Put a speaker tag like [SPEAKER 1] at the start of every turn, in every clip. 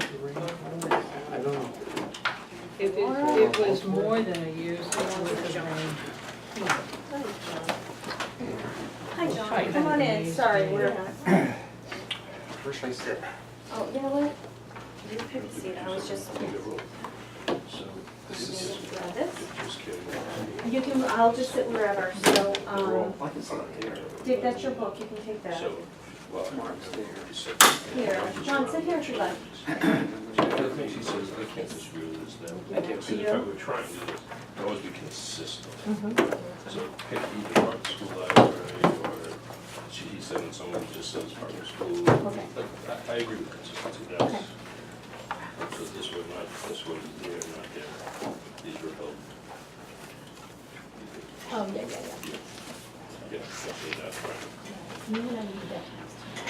[SPEAKER 1] I don't know.
[SPEAKER 2] If it, it was more than a year's, it would have been.
[SPEAKER 3] Hi, John, come on in, sorry, we're,
[SPEAKER 4] Where should I sit?
[SPEAKER 3] oh, you know what? You pick a seat, I was just,
[SPEAKER 4] So this is,
[SPEAKER 3] grab this.
[SPEAKER 4] just kidding.
[SPEAKER 3] You can, I'll just sit wherever, so, um,
[SPEAKER 4] I can sit up here.
[SPEAKER 3] Dick, that's your book, you can take that.
[SPEAKER 4] So, well, Mark's there.
[SPEAKER 3] Here, John, sit here if you like.
[SPEAKER 4] She says, I can't disagree with this now.
[SPEAKER 3] Thank you.
[SPEAKER 4] Because if I were trying to do this, I'd always be consistent.
[SPEAKER 3] Mm-hmm.
[SPEAKER 4] So pick either Harvard School Library or, she, he said, when someone just says Harvard School.
[SPEAKER 3] Okay.
[SPEAKER 4] But I, I agree with consistency, that's, so this one, not, this one, there, not there. These were held.
[SPEAKER 5] Oh, yeah, yeah,
[SPEAKER 4] Yeah, definitely not right.
[SPEAKER 5] yeah. You and I need that.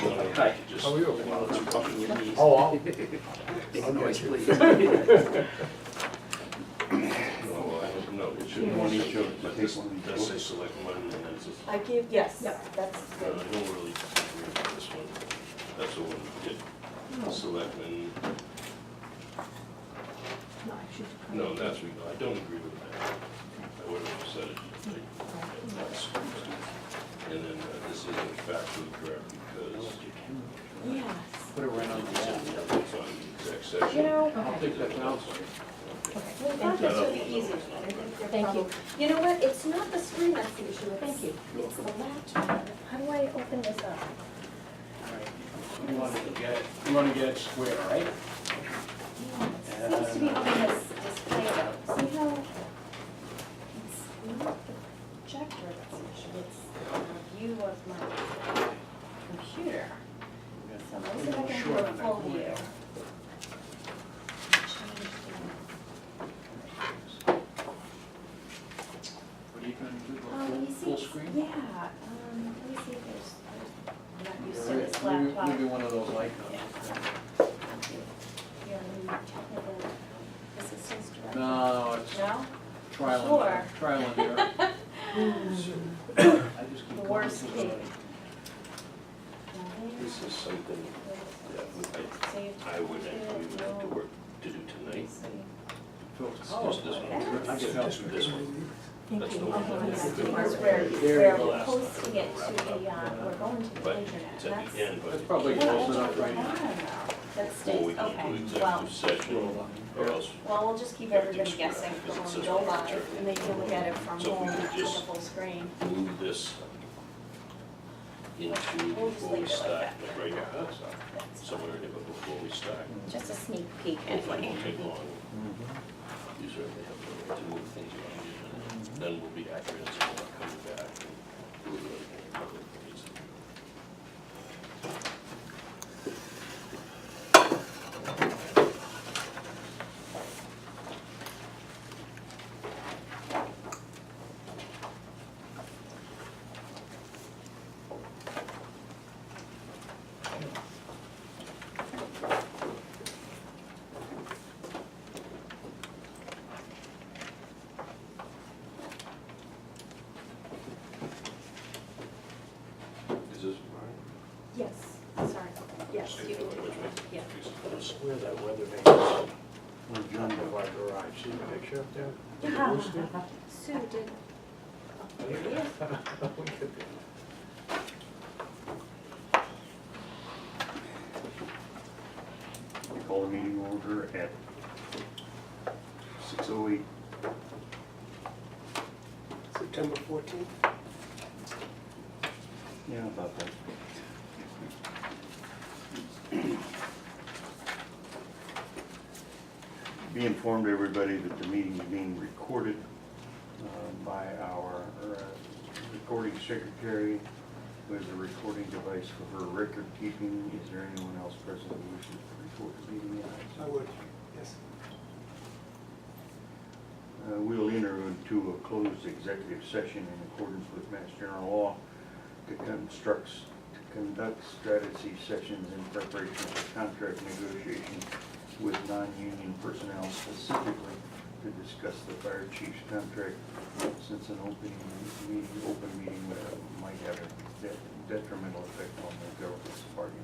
[SPEAKER 4] Hi. How are you?
[SPEAKER 1] Oh, I'll-
[SPEAKER 4] No, it should one each other, but this one does say select one, and then it's, a-
[SPEAKER 3] I give, yes,
[SPEAKER 5] Yep.
[SPEAKER 3] that's
[SPEAKER 4] no, I
[SPEAKER 3] good.
[SPEAKER 4] don't really agree with this one. That's the one we did, selectmen,
[SPEAKER 5] No, I should. come.
[SPEAKER 4] no, that's, we. I don't agree with that. I would have said it. like, that's stupid. And then uh, this isn't factually correct because
[SPEAKER 3] Yes.
[SPEAKER 1] Put it right on the
[SPEAKER 4] it's
[SPEAKER 1] end.
[SPEAKER 4] in the, it's on the exact section.
[SPEAKER 3] You know,
[SPEAKER 1] I'll
[SPEAKER 5] Okay,
[SPEAKER 1] take that now.
[SPEAKER 5] okay.
[SPEAKER 3] we thought this would be easy. I think they're
[SPEAKER 5] Thank you.
[SPEAKER 3] probably- You know what, it's not the screen that's the issue,
[SPEAKER 5] Thank
[SPEAKER 3] it's,
[SPEAKER 5] you.
[SPEAKER 3] it's the laptop. How do I open this up?
[SPEAKER 6] You want to get it, you want to get it square, right?
[SPEAKER 3] Seems to be on this display though, see how it's not the projector that's an issue, it's the view of my computer. So let me see if I can do a full view. Change
[SPEAKER 6] What are you going to do,
[SPEAKER 3] the-
[SPEAKER 6] a
[SPEAKER 3] Um,
[SPEAKER 6] full,
[SPEAKER 3] you see,
[SPEAKER 6] full screen?
[SPEAKER 3] yeah, um, let me see if there's, I'm not used to
[SPEAKER 1] Maybe-
[SPEAKER 3] this laptop.
[SPEAKER 1] Maybe one of those icons.
[SPEAKER 3] Here, let me technical assistance director.
[SPEAKER 1] No, it's
[SPEAKER 3] No?
[SPEAKER 1] trial
[SPEAKER 3] Sure.
[SPEAKER 1] and, trial and error. I just keep
[SPEAKER 3] The
[SPEAKER 1] going
[SPEAKER 3] worst
[SPEAKER 1] to the-
[SPEAKER 3] case.
[SPEAKER 4] This is something that I, I would actually like to work, to do tonight.
[SPEAKER 1] Phil's-
[SPEAKER 4] Oh, Just this one.
[SPEAKER 1] I can help you.
[SPEAKER 4] This one.
[SPEAKER 5] Thank
[SPEAKER 4] That's Oh, the
[SPEAKER 5] you.
[SPEAKER 4] one.
[SPEAKER 3] It's where, where we're posting it to the, uh, we're going to the
[SPEAKER 4] But it's
[SPEAKER 3] internet,
[SPEAKER 4] at the
[SPEAKER 3] that's.
[SPEAKER 4] end, but.
[SPEAKER 1] That's probably close enough right now.
[SPEAKER 3] That
[SPEAKER 4] Before we
[SPEAKER 3] stays,
[SPEAKER 4] go to
[SPEAKER 3] okay, well,
[SPEAKER 4] executive session,
[SPEAKER 7] uh,
[SPEAKER 4] or else,
[SPEAKER 3] well, we'll just keep everybody guessing,
[SPEAKER 4] Because it
[SPEAKER 3] we'll
[SPEAKER 4] says
[SPEAKER 3] go
[SPEAKER 4] monitor.
[SPEAKER 3] live, and they can look at it from
[SPEAKER 4] So if
[SPEAKER 3] home,
[SPEAKER 4] we could
[SPEAKER 3] to the
[SPEAKER 4] just-
[SPEAKER 3] full screen.
[SPEAKER 4] move this into before we start, like right here, huh?
[SPEAKER 3] That's
[SPEAKER 4] somewhere in there, but before we start.
[SPEAKER 3] Just a sneak peek
[SPEAKER 4] Hopefully it
[SPEAKER 3] anyway.
[SPEAKER 4] won't take long. You certainly have the right to move things around,
[SPEAKER 1] Mm-hmm.
[SPEAKER 4] and then we'll be accurate, so we'll come back and do it in public. Is this mine?
[SPEAKER 3] Yes, sorry, yes, you can do it. Yeah.
[SPEAKER 7] Where that weather vane is, when John Boulevard Garage, see the picture up there?
[SPEAKER 3] Yeah. Sue did. Oh, here it is.
[SPEAKER 7] We call the meeting order at six oh eight.
[SPEAKER 4] September fourteenth?
[SPEAKER 7] Yeah, about that. Be informed, everybody, that the meeting is being recorded uh, by our uh, recording secretary with a recording device for her record keeping. Is there anyone else present who wishes to record the meeting? I would, yes. Uh, We'll enter into a closed executive session in accordance with Mass General Law to constructs, to conduct strategy sessions in preparation for contract negotiations with non-union personnel specifically to discuss the fire chief's contract, since an opening meeting, open meeting uh, might have a de- detrimental effect on the government's bargaining